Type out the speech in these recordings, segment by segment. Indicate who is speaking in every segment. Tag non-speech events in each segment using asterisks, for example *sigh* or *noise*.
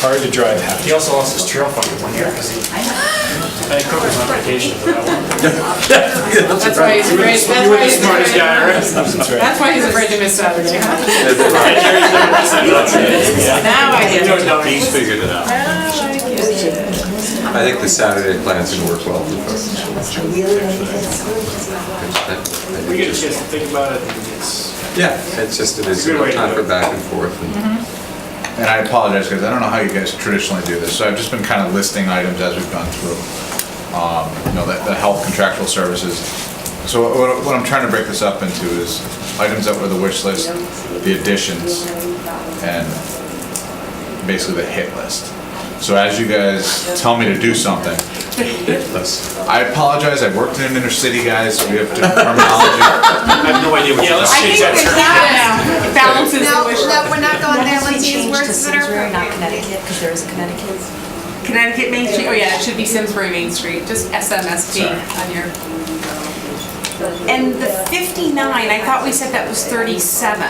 Speaker 1: hard to drive happy.
Speaker 2: He also lost his trail fucking one year because he, I think Cook was on vacation for that one.
Speaker 3: That's why he's afraid, that's
Speaker 2: You were
Speaker 3: why
Speaker 2: the
Speaker 3: *laughs* he's
Speaker 2: smartest
Speaker 3: afraid.
Speaker 2: guy, right?
Speaker 1: That's right.
Speaker 3: That's why he's afraid to miss Saturday. huh?
Speaker 2: Right, Jerry's never missed that.
Speaker 3: Now I
Speaker 2: He
Speaker 3: get
Speaker 2: knows
Speaker 3: it.
Speaker 2: how to
Speaker 4: He's
Speaker 2: eat.
Speaker 4: figured it out.
Speaker 3: Now I get it.
Speaker 4: I think the Saturday plan's gonna work well for folks.
Speaker 2: We get a chance to think about it and it's,
Speaker 4: Yeah, it's just, it is
Speaker 2: Good way to
Speaker 4: time
Speaker 2: do
Speaker 4: for
Speaker 2: it.
Speaker 4: back and forth. and-
Speaker 5: And I apologize, because I don't know how you guys traditionally do this, so I've just been kind of listing items as we've gone through. Um, You know, the the health contractual services. So what- what I'm trying to break this up into is items that were the wish list, the additions, and basically the hit list. So as you guys tell me to do something, I apologize, I worked in an inner city, guys, we have different terminology.
Speaker 2: I have no idea what. Yeah, let's
Speaker 3: I
Speaker 2: change
Speaker 3: think
Speaker 2: that.
Speaker 3: it's
Speaker 2: term.
Speaker 3: that now. Balances
Speaker 6: No,
Speaker 3: the wish list.
Speaker 6: no, we're not going there, let's use words that
Speaker 7: We're
Speaker 6: are
Speaker 7: not
Speaker 6: appropriate.
Speaker 7: Connecticut, because there is a Connecticut.
Speaker 3: Connecticut Main Street, oh yeah, it should be Simsbury Main Street, just SMSD on your. And the 59, I thought we said that was 37.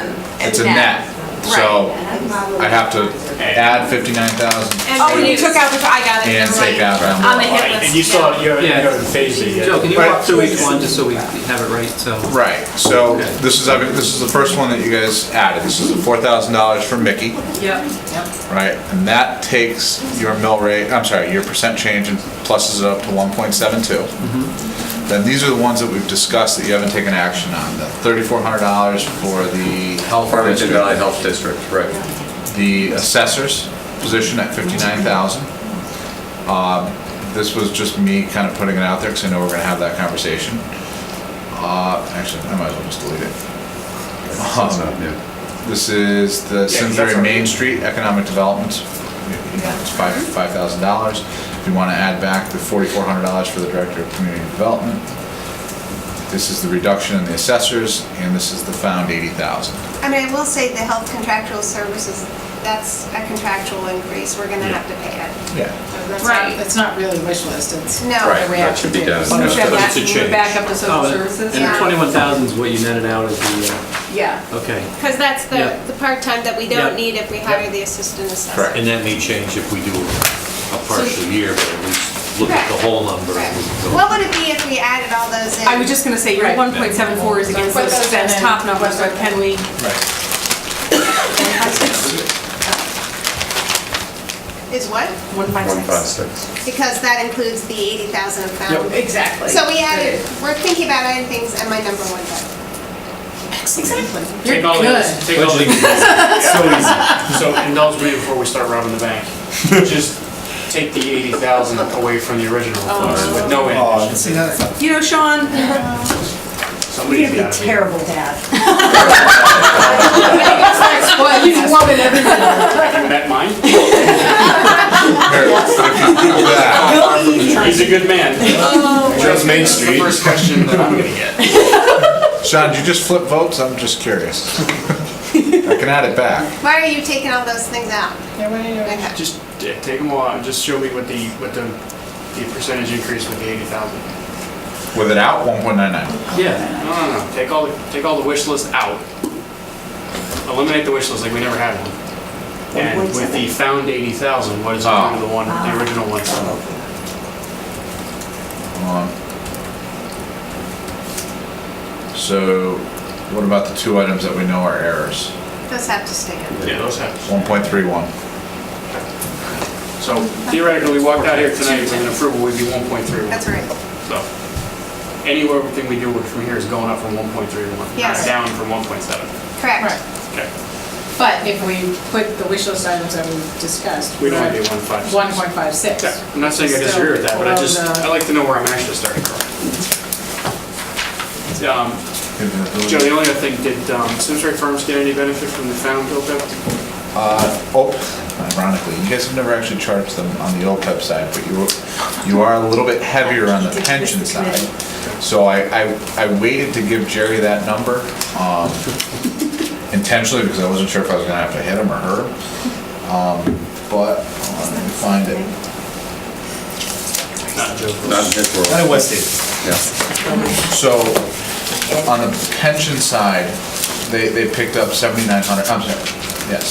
Speaker 5: It's a net, so
Speaker 3: Right.
Speaker 5: I have to add 59,000.
Speaker 3: Oh, you took out the, I got it.
Speaker 5: And
Speaker 3: never mind.
Speaker 5: take out that
Speaker 3: On the
Speaker 2: Right,
Speaker 3: hit
Speaker 2: And you
Speaker 3: list.
Speaker 2: still,
Speaker 3: yeah.
Speaker 2: haven't- you haven't, you
Speaker 8: Yeah.
Speaker 2: haven't phased it yet.
Speaker 8: Joe, can you
Speaker 5: Right.
Speaker 8: walk through each one just so we have it right? So
Speaker 5: Right, so this is, I mean, this is the first one that you guys added. This is the four thousand dollars for Mickey,
Speaker 3: Yep.
Speaker 5: right? And that takes your mill rate, I'm sorry, your percent change and pluses it up to one point seven two. Then these are the ones that we've discussed that you haven't taken action on. The thirty-four hundred dollars for the health
Speaker 4: Farmington Valley
Speaker 5: district,
Speaker 4: Health District, right.
Speaker 5: the assessor's position at fifty-nine thousand. Uh, This was just me kind of putting it out there because I know we're gonna have that conversation. Uh, Actually, I might as well just delete it. Um,
Speaker 4: That's not new.
Speaker 5: This is the Simsbury Main Street Economic Development, you know, it's five, five thousand dollars. If you want to add back the forty-four hundred dollars for the Director of Community Development. This is the reduction in the assessors, and this is the found eighty thousand.
Speaker 6: I mean, I will say the health contractual services, that's a contractual increase, we're gonna have to pay it.
Speaker 5: Yeah.
Speaker 3: Right.
Speaker 9: It's not really wish list, it's.
Speaker 6: No.
Speaker 4: Right, that should be down.
Speaker 3: Move that
Speaker 4: But
Speaker 3: back,
Speaker 4: it's a
Speaker 3: move
Speaker 4: change.
Speaker 3: it back up to social
Speaker 8: Oh,
Speaker 3: services.
Speaker 8: And the twenty-one thousand is what you netted out as the,
Speaker 3: Yeah.
Speaker 8: uh, okay.
Speaker 6: Because that's
Speaker 8: Yeah.
Speaker 6: the, the part-time that we don't
Speaker 8: Yeah.
Speaker 6: need if we hire the assistant assessor.
Speaker 4: And that may change if we do a partial year, but at least look at the whole number.
Speaker 6: Right.
Speaker 4: and we can go-
Speaker 6: What would it be if we added all those in?
Speaker 3: I was just gonna say, your
Speaker 9: Right.
Speaker 3: 1.74 is against
Speaker 9: Put those
Speaker 3: those, that's
Speaker 9: in.
Speaker 3: top number, so can we?
Speaker 5: Right.
Speaker 6: Is what?
Speaker 3: 156.
Speaker 6: Because that includes the eighty thousand found.
Speaker 3: Exactly.
Speaker 6: So we added, we're thinking about adding things, and my number one down.
Speaker 3: Exactly.
Speaker 2: Take
Speaker 3: You're
Speaker 2: all
Speaker 3: good.
Speaker 2: these, take all these. Yeah. So indulge me before we start robbing the bank. Just take the eighty thousand away from the original funds with no
Speaker 1: Oh,
Speaker 2: addition.
Speaker 1: see, that's not.
Speaker 3: You know, Sean,
Speaker 1: Oh,
Speaker 2: Somebody's
Speaker 7: You'd be
Speaker 2: got to be.
Speaker 7: terrible
Speaker 2: *laughs*
Speaker 7: dad.
Speaker 3: well, you woman, everybody.
Speaker 2: You met mine?
Speaker 5: Yeah.
Speaker 2: He's a good man.
Speaker 1: Just Main Street.
Speaker 2: First question that I'm gonna get.
Speaker 5: Sean, did you just flip votes? I'm just curious. I can add it back.
Speaker 6: Why are you taking all those things out? Okay.
Speaker 2: Just uh, take them all out, and just show me what the, what the, the percentage increase with the eighty thousand.
Speaker 5: With it out, one point nine nine.
Speaker 8: Yeah,
Speaker 2: No, no, no, take all, the take all the wish list out. Eliminate the wish list like we never had one. And with the found eighty thousand, what is under the one,
Speaker 6: Ah.
Speaker 2: the original one?
Speaker 5: Hold on. So what about the two items that we know are errors?
Speaker 6: Those have to stay in.
Speaker 2: Yeah, those have.
Speaker 5: 1.31.
Speaker 2: So theoretically, we walked out here tonight with an approval, we'd be one point three one.
Speaker 6: That's right.
Speaker 2: So anywhere, everything we do from here is going up from one point three one, not
Speaker 6: Yes.
Speaker 2: down from one point seven.
Speaker 6: Correct.
Speaker 9: Right,
Speaker 2: Okay,
Speaker 9: but if we put the wish list items that we discussed. uh,
Speaker 2: we don't want to be one five.
Speaker 9: One point five six.
Speaker 2: Yeah, I'm not saying I disagree with that, but I just, I like to know where I'm actually starting from. Um, Joe, the only other thing, did um, Simsbury Farms get any benefit from the found OPEB?
Speaker 5: OPEB, ironically, you guys have never actually charged them on the OPEB side, but you, you are a little bit heavier on the pension side. So I, I, I waited to give Jerry that number um, intentionally because I wasn't sure if I was gonna have to hit him or her. Um, But, hold on, let me find it.
Speaker 2: Not Joe.
Speaker 4: Not in his world.
Speaker 1: Out of West Haven.
Speaker 4: Yeah.
Speaker 5: So on the pension side, they, they picked up 7,900, I'm sorry, yeah,